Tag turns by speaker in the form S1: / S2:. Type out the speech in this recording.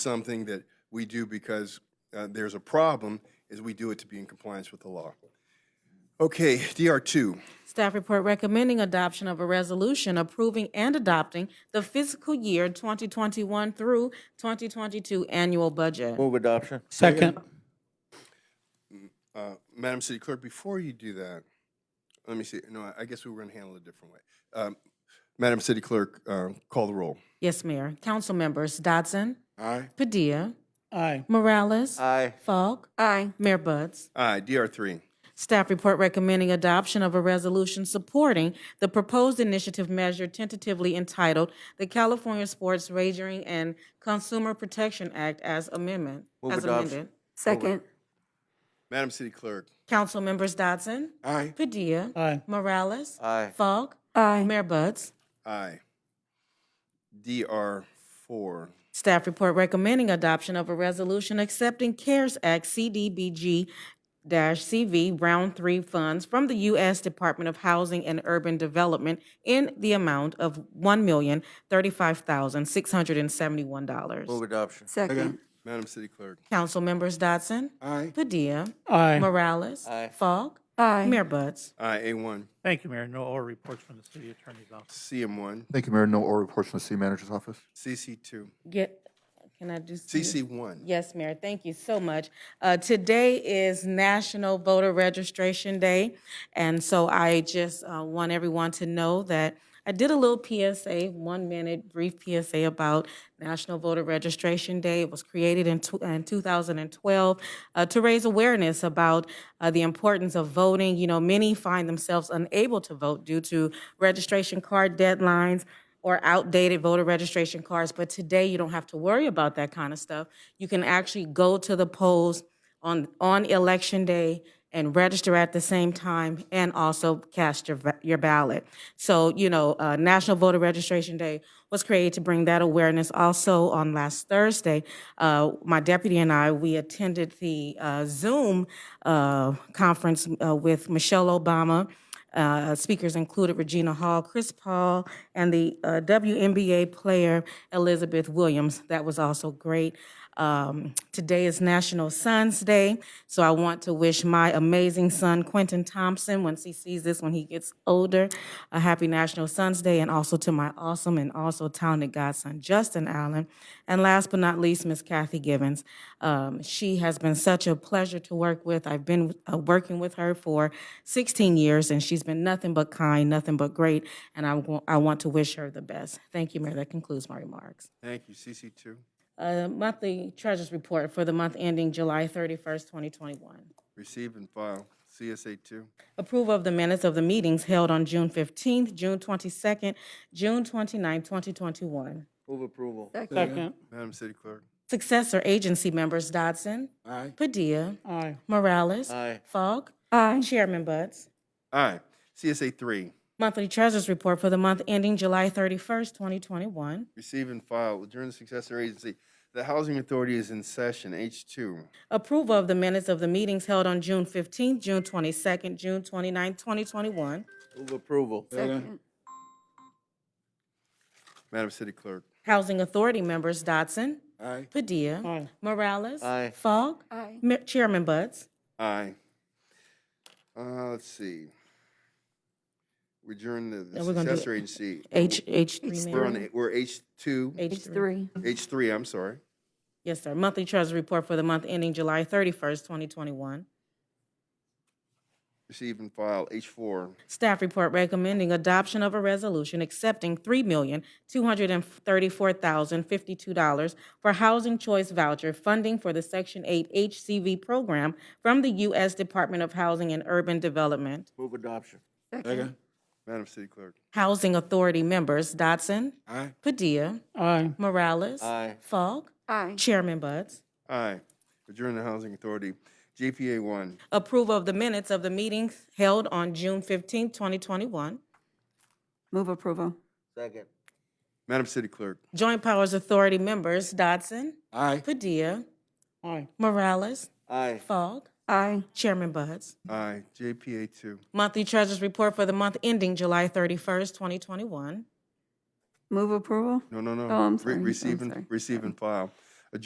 S1: something that we do because uh, there's a problem, is we do it to be in compliance with the law. Okay, DR two,
S2: Staff report recommending adoption of a resolution approving and adopting the fiscal year 2021 through 2022 annual budget.
S3: Move adoption.
S4: Second.
S1: Uh, Madam City Clerk, before you do that, let me see, no, I- I guess we were gonna handle it a different way. Um, Madam City Clerk, um, call the roll.
S2: Yes, Mayor. Council members Dodson,
S1: Aye.
S2: Padilla,
S4: Aye.
S2: Morales,
S3: Aye.
S2: Falk. Aye. Mayor Buds.
S1: Aye, DR three.
S2: Staff report recommending adoption of a resolution supporting the proposed initiative measure tentatively entitled the California Sports Wagering and Consumer Protection Act as amendment,
S3: Move
S2: as
S3: adoption.
S2: amended.
S5: Oh, Second,
S1: Madam City Clerk.
S2: Council members Dodson,
S1: Aye.
S2: Padilla,
S4: Aye.
S2: Morales,
S3: Aye.
S2: Falk,
S5: aye.
S2: Mayor Buds.
S1: Aye. DR four.
S2: Staff report recommending adoption of a resolution accepting CARES Act CDBG CV Round Three funds from the U.S. Department of Housing and Urban Development in the amount of one million thirty-five thousand six hundred and seventy-one dollars.
S3: Move adoption.
S5: Second,
S1: Madam City Clerk.
S2: Council members Dotson. Aye. Padilla.
S4: Aye.
S2: Morales.
S3: Aye.
S2: Falk.
S5: aye.
S2: Mayor Buds.
S1: Aye, A one,
S4: Thank you, Mayor. No oral reports from the city attorney's office.
S1: CM one,
S6: Thank you, Mayor. No oral reports from the city manager's office.
S1: CC two,
S2: Get, can I do?
S1: CC one.
S2: Yes, Mayor, thank you so much. Uh, Today is National Voter Registration Day, and so I just uh, want everyone to know that I did a little PSA, one-minute brief PSA about National Voter Registration Day. It was created in tw- in 2012 uh, to raise awareness about uh, the importance of voting. You know, many find themselves unable to vote due to registration card deadlines, or outdated voter registration cards, but today you don't have to worry about that kind of stuff. You can actually go to the polls on, on election day and register at the same time and also cast your, va- your ballot. So, you know, uh, National Voter Registration Day was created to bring that awareness. Also, on last Thursday, uh, my deputy and I, we attended the uh, Zoom uh, conference uh, with Michelle Obama. Uh, speakers included Regina Hall, Chris Paul, and the uh, WNBA player Elizabeth Williams. That was also great. Um, today is National Sons Day, so I want to wish my amazing son Quentin Thompson, once he sees this when he gets older, a happy National Sons Day, and also to my awesome and also talented godson Justin Allen, and last but not least, Miss Kathy Givens. Um, she has been such a pleasure to work with. I've been uh, working with her for 16 years, and she's been nothing but kind, nothing but great, and I wa- I want to wish her the best. Thank you, Mayor. That concludes my remarks.
S1: Thank you, CC two.
S2: Uh, monthly treasurer's report for the month ending July 31st, 2021.
S1: Receive and file, CSA two.
S2: Approval of the minutes of the meetings held on June 15th, June 22nd, June 29th, 2021.
S3: Move approval.
S5: Second,
S1: Madam City Clerk.
S2: Successor agency members Dodson.
S1: Aye.
S2: Padilla.
S4: Aye.
S2: Morales.
S3: Aye.
S2: Falk.
S5: aye.
S2: Chairman Buds.
S1: Aye, CSA three.
S2: Monthly treasurer's report for the month ending July 31st, 2021.
S1: Receive and file, adjourn the successor agency. The Housing Authority is in session, H two.
S2: Approval of the minutes of the meetings held on June 15th, June 22nd, June 29th, 2021.
S3: Move approval.
S5: Second,
S1: Madam City Clerk.
S2: Housing Authority members Dodson.
S1: Aye.
S2: Padilla.
S4: Aye.
S2: Morales.
S3: Aye.
S2: Falk.
S5: aye.
S2: Ma- Chairman Buds.
S1: Aye. Uh, let's see. We adjourn the- the
S2: Now we're gonna do
S1: successor agency.
S2: H, H3,
S1: We're
S2: Mayor.
S1: on, we're H two,
S5: It's
S2: H3.
S5: three,
S1: H three, I'm sorry.
S2: Yes, sir. Monthly Treasury Report for the month ending July 31st, 2021.
S1: Receive and file, H four.
S2: Staff report recommending adoption of a resolution accepting $3,234,052 for housing choice voucher funding for the Section 8 HCV program from the U.S. Department of Housing and Urban Development.
S3: Move adoption.
S5: second,
S1: Madam City Clerk.
S2: Housing Authority members Dodson.
S1: Aye.
S2: Padilla.
S4: Aye.
S2: Morales.
S3: Aye.
S2: Falk.
S5: aye.
S2: Chairman Buds.
S1: Aye. Adjourn the Housing Authority. JPA one.
S2: Approval of the minutes of the meetings held on June 15, 2021.
S5: Move approval,
S3: Second.
S1: Madam City Clerk.
S2: Joint Powers Authority members Dodson.
S1: Aye.
S2: Padilla.
S4: Aye.
S2: Morales.
S3: Aye.
S2: Fogg.
S5: aye.
S2: Chairman Buds.
S1: Aye. JPA two.
S2: Monthly Treasurers Report for the month ending July 31st, 2021.
S5: Move approval,
S1: No, no, no.
S5: Oh, I'm
S1: Re-
S5: sorry.
S1: Receive
S5: I'm
S1: and,
S5: sorry.
S1: receive and file.